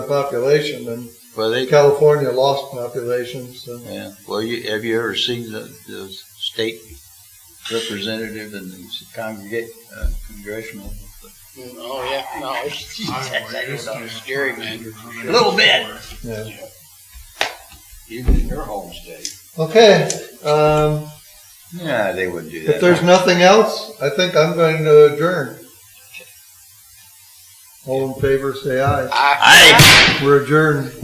population, and Well, they, California lost population, so. yeah, well, you, have you ever seen the, the state representative in the congregate, uh, congressional? Oh, yeah, no, it's, it's know. scary, man. A little bit. Yeah. Even in your home state. Okay, um, Yeah, they wouldn't do that. if there's nothing else, I think I'm going to adjourn. All in favor, say aye. I- I- We're adjourned.